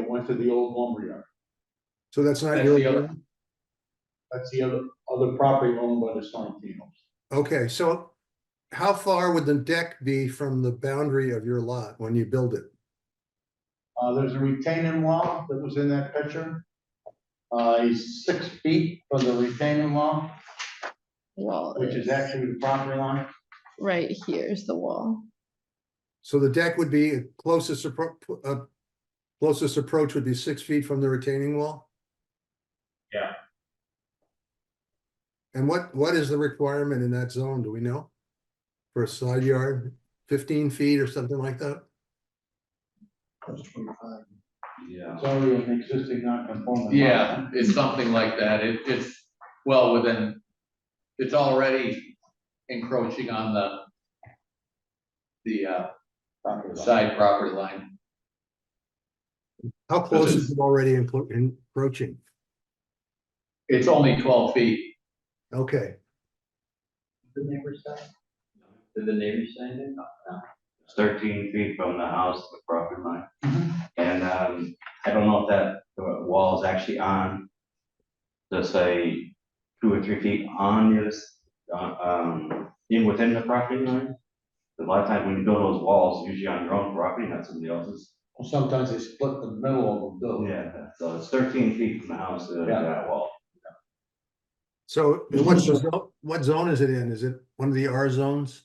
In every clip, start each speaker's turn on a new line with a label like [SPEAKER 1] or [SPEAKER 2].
[SPEAKER 1] went to the old lumberyard.
[SPEAKER 2] So that's not
[SPEAKER 1] That's
[SPEAKER 2] your,
[SPEAKER 1] the other-
[SPEAKER 2] land?
[SPEAKER 1] That's the other, other property owned by the Sorrentinos.
[SPEAKER 2] okay, so how far would the deck be from the boundary of your lot when you build it?
[SPEAKER 1] Uh, there's a retaining wall that was in that picture. Uh, he's six feet from the retaining wall,
[SPEAKER 3] Wall
[SPEAKER 1] which is actually the property line.
[SPEAKER 3] right here is the wall.
[SPEAKER 2] So the deck would be closest appro- uh, closest approach would be six feet from the retaining wall?
[SPEAKER 1] Yeah.
[SPEAKER 2] And what, what is the requirement in that zone? Do we know? For a side yard, fifteen feet or something like that?
[SPEAKER 4] Yeah.
[SPEAKER 1] It's already an existing non-conforming. lot.
[SPEAKER 4] Yeah, it's something like that. It, it's well within, it's already encroaching on the the uh
[SPEAKER 1] Property line.
[SPEAKER 4] side property line.
[SPEAKER 2] How close
[SPEAKER 4] is-
[SPEAKER 2] is it already encro- encroaching?
[SPEAKER 4] It's only twelve feet.
[SPEAKER 2] Okay,
[SPEAKER 5] The neighbor side? Did the neighbor side it?
[SPEAKER 6] It's thirteen feet from the house to the property line. And, um, I don't know if that uh, wall is actually on, let's say, two or three feet on your, s- uh, um, in within the property line. A lot of times when you build those walls, usually on your own property, not somebody else's.
[SPEAKER 1] Well, Sometimes they split the middle of the building.
[SPEAKER 6] Yeah, so it's thirteen feet from the house to
[SPEAKER 1] Yeah.
[SPEAKER 6] that wall.
[SPEAKER 2] so and what's the, zo- what zone is it in? Is it one of the R zones?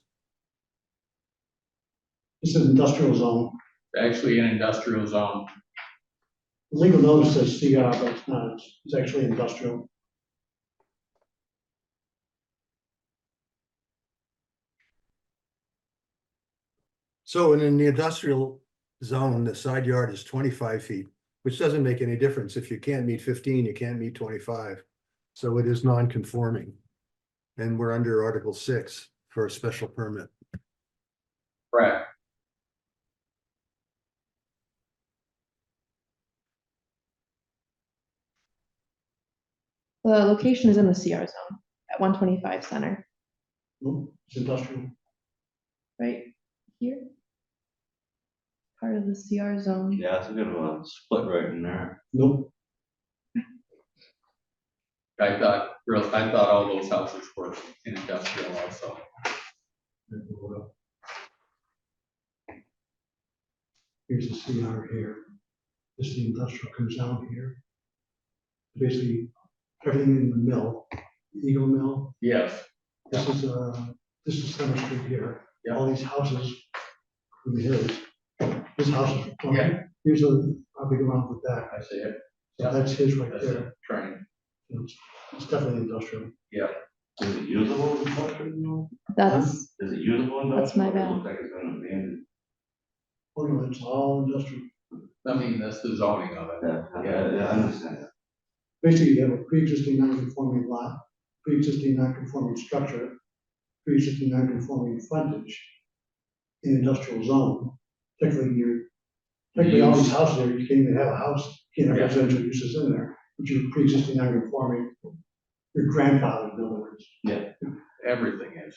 [SPEAKER 7] It's an industrial zone.
[SPEAKER 4] Actually, an industrial zone.
[SPEAKER 7] Legal notice says CR, but it's not. It's- It's actually industrial.
[SPEAKER 2] So in the industrial zone, the side yard is twenty-five feet, which doesn't make any difference. If you can't meet fifteen, you can't meet twenty-five. So it is non-conforming. And we're under Article six for a special permit.
[SPEAKER 4] Correct.
[SPEAKER 3] The location is in the CR zone at one twenty-five center,
[SPEAKER 7] Nope, It's industrial.
[SPEAKER 3] right here. Part of the CR zone.
[SPEAKER 6] Yeah, it's a bit of a split right in there.
[SPEAKER 7] Nope.
[SPEAKER 4] I thought, real, I thought all those houses were in industrial also.
[SPEAKER 7] Here's the CR here. This is the industrial comes down here. Basically, everything in the mill, Eagle Mill.
[SPEAKER 4] Yes.
[SPEAKER 7] This is, uh, this is Center Street here.
[SPEAKER 4] Yeah.
[SPEAKER 7] All these houses from the hills. This house is,
[SPEAKER 4] Yeah.
[SPEAKER 7] here's a, probably around the back.
[SPEAKER 4] I see it.
[SPEAKER 7] So that's his right
[SPEAKER 4] That's
[SPEAKER 7] there.
[SPEAKER 4] a train.
[SPEAKER 7] It's it's definitely industrial.
[SPEAKER 6] Is it usable? in Portland, you know?
[SPEAKER 1] Uh-huh.
[SPEAKER 3] That's,
[SPEAKER 6] Is it usable? in
[SPEAKER 3] That's my
[SPEAKER 6] Portland? It
[SPEAKER 3] bad.
[SPEAKER 6] looks like it's been abandoned.
[SPEAKER 7] Oh, no, it's all industrial.
[SPEAKER 4] I mean, that's the zoning of it.
[SPEAKER 6] Yeah, I- I understand.
[SPEAKER 7] Basically, you have a pre-existing non-conforming lot, pre-existing non-conforming structure, pre-existing non-conforming frontage in industrial zone. Technically, you're, technically, all these houses there, you can't even have a house, you can't have residential uses in there, but you're pre-existing non-conforming, your grandfather, in other words.
[SPEAKER 4] Everything is.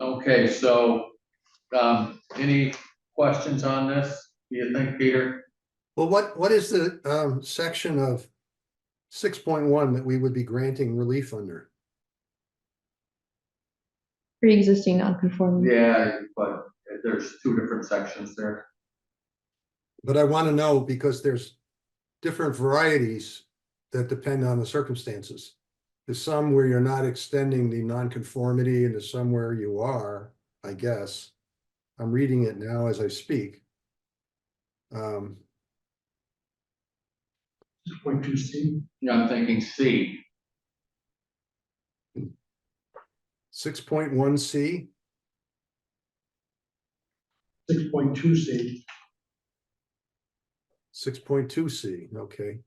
[SPEAKER 4] Okay, so, um, any questions on this, do you think, Peter?
[SPEAKER 2] Well, what, what is the um section of six point one that we would be granting relief under?
[SPEAKER 3] pre-existing non-conforming.
[SPEAKER 4] Yeah, but there's two different sections there.
[SPEAKER 2] But I want to know because there's different varieties that depend on the circumstances. There's some where you're not extending the nonconformity and there's some where you are, I guess. I'm reading it now as I speak. Um,
[SPEAKER 7] Six point two C,
[SPEAKER 4] Yeah, I'm thinking C,
[SPEAKER 2] six point one C,
[SPEAKER 7] six point two C,
[SPEAKER 2] six point two C, okay.